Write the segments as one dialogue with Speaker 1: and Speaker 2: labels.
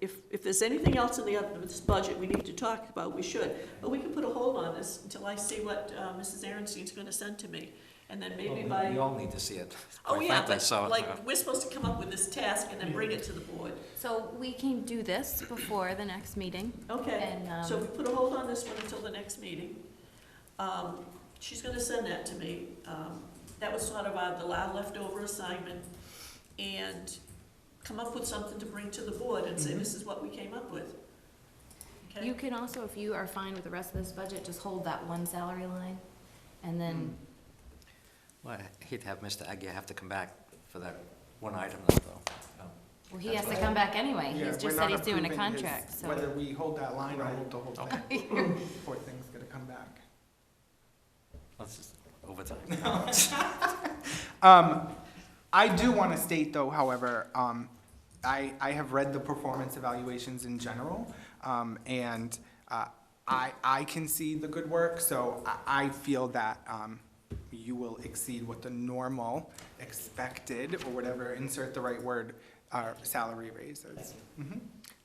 Speaker 1: if there's anything else in the, other- this budget we need to talk about, we should. But we can put a hold on this until I see what uh, Mrs. Aaronstein's gonna send to me, and then maybe
Speaker 2: Well, We
Speaker 1: by,
Speaker 2: all need to see it.
Speaker 1: oh,
Speaker 2: quite
Speaker 1: yeah,
Speaker 2: frankly,
Speaker 1: but
Speaker 2: so, uh,
Speaker 1: like, we're supposed to come up with this task and then bring it to the board.
Speaker 3: So we can do this before the next meeting.
Speaker 1: Okay,
Speaker 3: And, um,
Speaker 1: so we put a hold on this one until the next meeting. Um, She's gonna send that to me. Um, That was sort of our, the la- leftover assignment, and come up with something to bring to the board and say,
Speaker 2: Mhm.
Speaker 1: this is what we came up with. Okay?
Speaker 3: You can also, if you are fine with the rest of this budget, just hold that one salary line and then,
Speaker 4: Hmm.
Speaker 2: Well, he'd have Mr. Agia have to come back for that one item though.
Speaker 3: well, he has to come back anyway.
Speaker 4: Yeah,
Speaker 3: He's
Speaker 4: we're not
Speaker 3: just said he's doing a
Speaker 4: approving his-
Speaker 3: contract, so.
Speaker 4: Whether we hold that line or
Speaker 2: Right.
Speaker 4: hold the whole thing, poor thing's gonna come back.
Speaker 2: Let's just, overtime.
Speaker 4: Um, I do want to state though, however, um, I, I have read the performance evaluations in general, um, and, uh, I, I can see the good work, so I, I feel that, um, you will exceed what the normal expected, or whatever, insert the right word, uh, salary raise is. Mhm.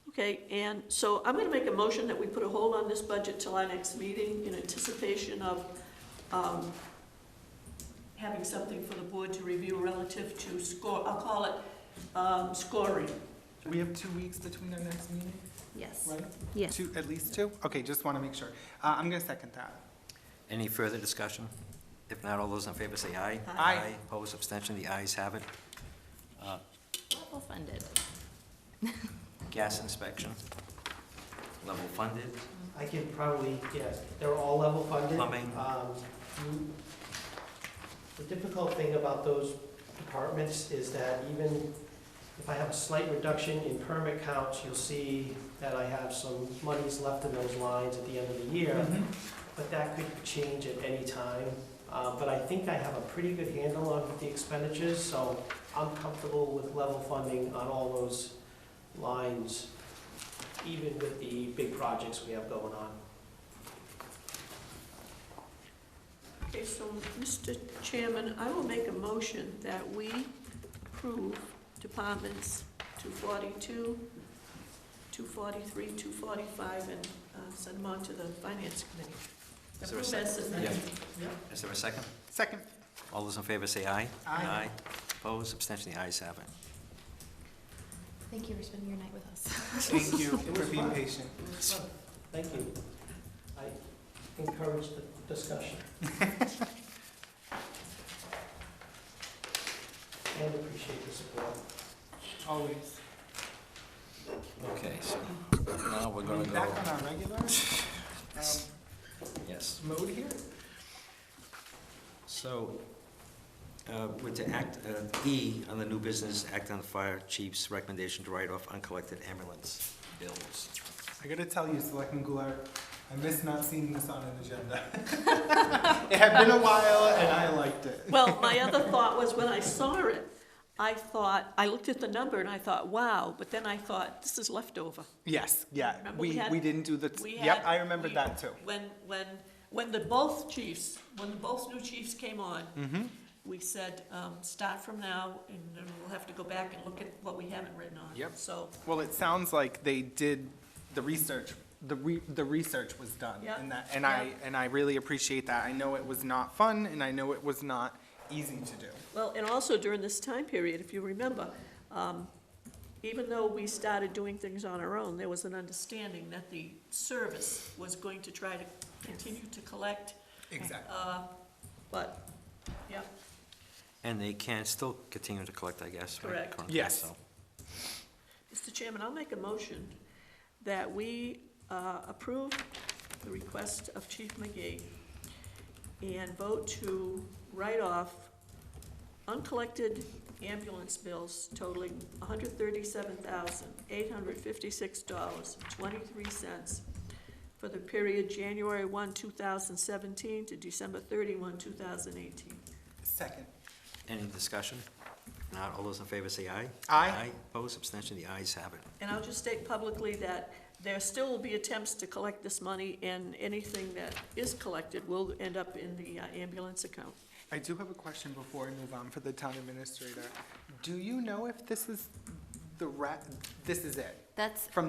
Speaker 1: Okay, and so I'm gonna make a motion that we put a hold on this budget till our next meeting in anticipation of, um, having something for the board to review relative to score, I'll call it, um, scoring.
Speaker 4: We have two weeks between our next meeting,
Speaker 3: Yes.
Speaker 4: right?
Speaker 3: Yes.
Speaker 4: Two, at least two? Okay, just want to make sure. Uh, I'm gonna second that.
Speaker 2: Any further discussion? If not, all those in favor say aye.
Speaker 4: Aye.
Speaker 2: Opposed, abstention, the ayes have it. Uh,
Speaker 3: Level funded.
Speaker 2: Gas inspection, level funded,
Speaker 5: I can probably, yes, they're all level funded.
Speaker 2: Plumbing.
Speaker 5: Um, you- The difficult thing about those departments is that even if I have a slight reduction in permit counts, you'll see that I have some monies left in those lines at the end of the year,
Speaker 4: Mm-hmm.
Speaker 5: but that could change at any time. Uh, But I think I have a pretty good handle on the expenditures, so I'm comfortable with level funding on all those lines, even with the big projects we have going on.
Speaker 1: Okay, so, Mr. Chairman, I will make a motion that we approve departments 242, 243, 245, and uh, send them on to the Finance Committee.
Speaker 2: Is there a
Speaker 1: Approve
Speaker 2: second?
Speaker 1: as submitted.
Speaker 2: is there a second?
Speaker 4: Second.
Speaker 2: All those in favor say aye.
Speaker 4: Aye.
Speaker 2: Opposed, abstention, the ayes have it.
Speaker 3: Thank you for spending your night with us.
Speaker 4: Thank you
Speaker 5: It
Speaker 4: for
Speaker 5: was
Speaker 4: being
Speaker 5: fun.
Speaker 4: patient.
Speaker 5: Thank you. I encourage the discussion. And appreciate the support.
Speaker 4: Always.
Speaker 2: Okay, so now we're gonna go,
Speaker 4: Back on our regular um,
Speaker 2: yes.
Speaker 4: mode here.
Speaker 2: So, uh, we're to act, uh, E, on the new business, act on the fire chief's recommendation to write off uncollected ambulance bills.
Speaker 4: I gotta tell you, Selectman Goulart, I miss not seeing this on an agenda. It had been a while and I liked it.
Speaker 1: Well, my other thought was when I saw it, I thought, I looked at the number and I thought, wow, but then I thought, this is leftover.
Speaker 4: Yes, yeah,
Speaker 1: Remember we
Speaker 4: we,
Speaker 1: had-
Speaker 4: we didn't do the,
Speaker 1: We
Speaker 4: yep,
Speaker 1: had-
Speaker 4: I remembered
Speaker 1: we-
Speaker 4: that too.
Speaker 1: When, when, when the both chiefs, when the both new chiefs came on,
Speaker 4: Mm-hmm.
Speaker 1: we said, um, start from now, and then we'll have to go back and look at what we haven't written on.
Speaker 4: Yep.
Speaker 1: So,
Speaker 4: Well, it sounds like they did the research, the re, the research was done.
Speaker 1: Yeah.
Speaker 4: And that, and I, and I really appreciate that. I know it was not fun and I know it was not easy to do.
Speaker 1: well, and also during this time period, if you remember, um, even though we started doing things on our own, there was an understanding that the service was going to try to continue to collect,
Speaker 4: Exactly.
Speaker 1: uh, but, yeah,
Speaker 2: And they can still continue to collect, I guess, right?
Speaker 1: Correct.
Speaker 2: Currently,
Speaker 4: Yes.
Speaker 2: so.
Speaker 1: Mr. Chairman, I'll make a motion that we uh, approve the request of Chief McGee and vote to write off uncollected ambulance bills totaling $137,856.23 for the period January 1, 2017 to December 31, 2018.
Speaker 4: Second.
Speaker 2: Any discussion? Not all those in favor say aye.
Speaker 4: Aye.
Speaker 2: Opposed, abstention, the ayes have it.
Speaker 1: And I'll just state publicly that there still will be attempts to collect this money, and anything that is collected will end up in the uh, ambulance account.
Speaker 4: I do have a question before I move on for the town administrator. Do you know if this is the ra, this is it?
Speaker 3: That's
Speaker 4: From